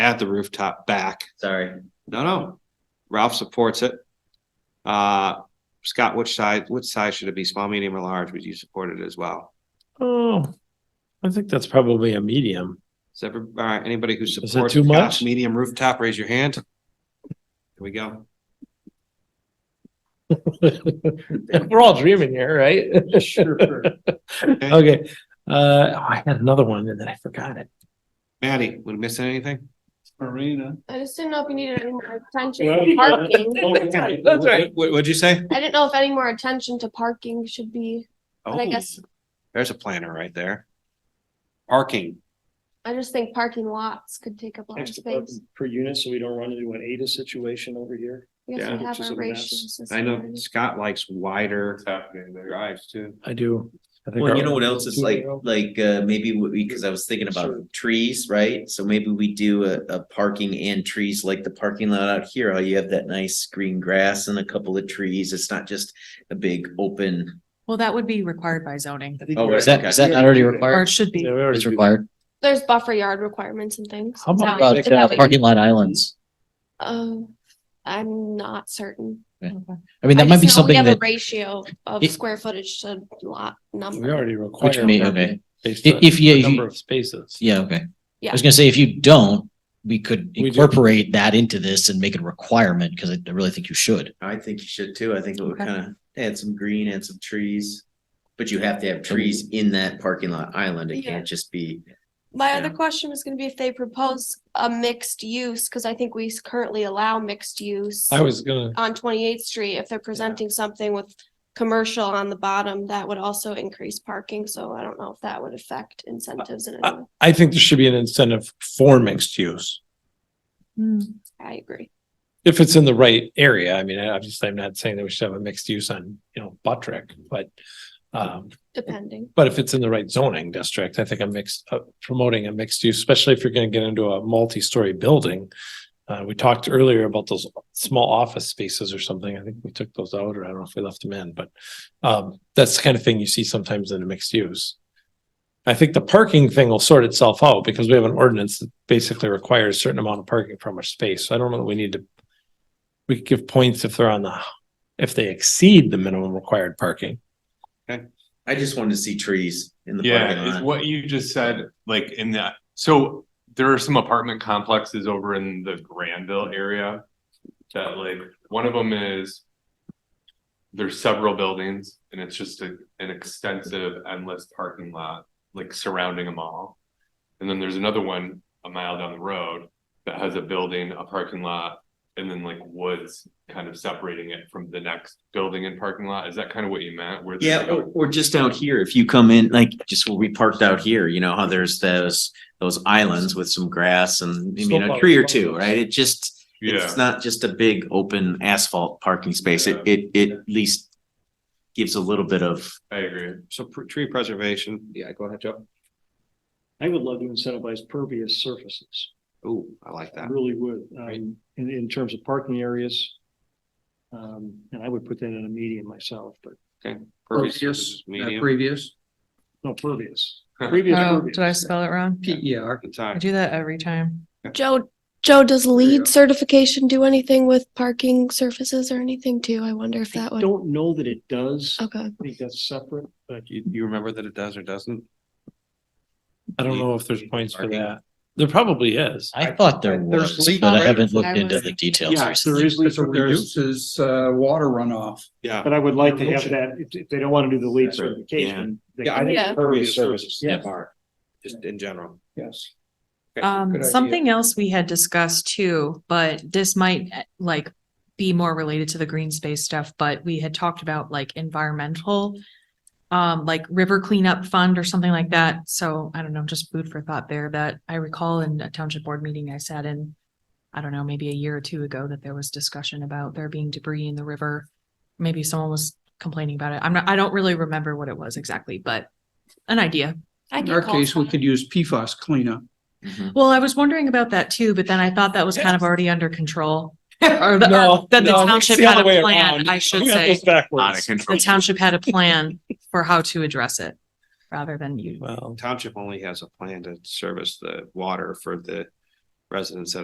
at the rooftop back. Sorry. No, no. Ralph supports it. Uh, Scott, which side, which size should it be? Small, medium or large? Would you support it as well? Oh, I think that's probably a medium. Is ever, all right, anybody who it supports too Scott's much? medium rooftop, raise your hand. Here we go. We're all dreaming here, right? Okay, uh, I had another one and then I forgot it. Maddie, would we miss anything? Marina. I just didn't know if you needed any more attention Well, to parking. That's right. What, what'd you say? I didn't know if any more attention to parking should be, but I Oh, guess, There's a planner right there. Parking. I just think parking lots could take up a lot of space. Per unit, so we don't run into an ADA situation over here. I guess yeah, we which have is our a mess. ratios. and I know stuff. Scott likes wider drives too. I do. I think Well, you our- know what else is like, like, uh, maybe what we, cause I was thinking Sure. about trees, right? So maybe we do a, a parking and trees, like the parking lot out here, how you have that nice green grass and a couple of trees. It's not just a big open. Well, that would be required by zoning, Oh, Is that, is that not already or it required? should be. Yeah, we already It's do that. required. There's buffer yard requirements and things. How about- About Is that uh, what you- parking lot islands. Um, I'm not certain. I mean, I that might just know be we something have a that, Ratio of It- square footage to lot We number. already require. which may, parking okay, based If- on if you- the if you- Number of spaces. yeah, okay. Yeah. I was gonna say, if you don't, we could do. incorporate that into this and make it a requirement, because I I really think you should. I think you should too. I think it would Okay. kinda add some green and some trees. But you have to have trees in that parking lot island. It Yeah. can't just be, My other Yeah. question was gonna be if they propose a mixed use, because I think we s- currently allow mixed use. I was gonna, on Twenty-Eighth Street, if they're presenting something with commercial on the bottom, that would also increase parking, so I don't know if that would affect incentives in Uh, any way. I think there should be an incentive for mixed use. Hmm. I agree. If it's in the right area. I mean, obviously I'm not saying that we should have a mixed use on, you know, Buttrick, but um, Depending. But if it's in the right zoning district, I think a mixed, uh, promoting a mixed use, especially if you're gonna get into a multi-story building. Uh, we talked earlier about those small office spaces or something. I think we took those out or I don't know if we left them in, but. Um, that's the kind of thing you see sometimes in a mixed use. I think the parking thing will sort itself out because we have an ordinance that basically requires a certain amount of parking from our space. So I don't know that we need to. We could give points if they're on the, if they exceed the minimum required parking. I just wanted to see trees in the parking Yeah, it's lot. what you just said, like in that, so there are some apartment complexes over in the Granville area. That like, one of them is. There's several buildings and it's just a, an extensive endless parking lot, like surrounding them all. And then there's another one a mile down the road that has a building, a parking lot. And then like woods kind of separating it from the next building and parking lot. Is that kind of what you meant? Where there's Yeah, oh, like a- or, or just out here, if you come in, like, just where we parked out here, you know, how there's those, those islands with some grass and, I mean, a tree or two, right? It just, Yeah. it's not just a big open asphalt parking space. It, Yeah. it, it at least gives a little bit of, I agree. So pr- tree preservation. Yeah, go ahead, Joe. I would love to incentivize pervious surfaces. Ooh, I like I that. really would, Right. um, in, in terms of parking areas. Um, and I would put that in a median myself, but Pervious surfaces, medium. previous. no pervious. Previous, Oh, pervious. did I spell it wrong? P E R. I Inside. do that every time. Joe, Joe, does lead lead certification do anything with parking surfaces or anything too? I wonder if I that would, don't know that it does. I okay. think that's separate, but You, you remember that it does or doesn't? I don't You- know if there's points for parking. that. There probably is. I thought there There's was, legal but I haven't I looked was- into the details yeah, there recently. is, It legal reduce. reduces uh water runoff. Yeah. but I would like to have that, if, if they don't want to do the lead Separate, certification. they Yeah, I can think Yeah. pervious surfaces. Yes. are, Just in general. Yes. Good Um, idea. something else we had discussed too, but this might eh, like be more related to the green space stuff, but we had talked about like environmental. Um, like river cleanup fund or something like that. So I don't know, just food for thought there that I recall in a township board meeting I sat in. I don't know, maybe a year or two ago that there was discussion about there being debris in the river. Maybe someone was complaining about it. I'm not, I don't really remember what it was exactly, but an idea. I In can our call case, we someone. could use PFAS cleanup. Well, I was wondering about that too, but then I thought that was kind of already under control. Or the- No, or that the no, it's township the had other way a plan, around. I should We have say. this backwards. The township had a plan for how to address it rather than you. Well, Township only has a plan to service the water for the residents that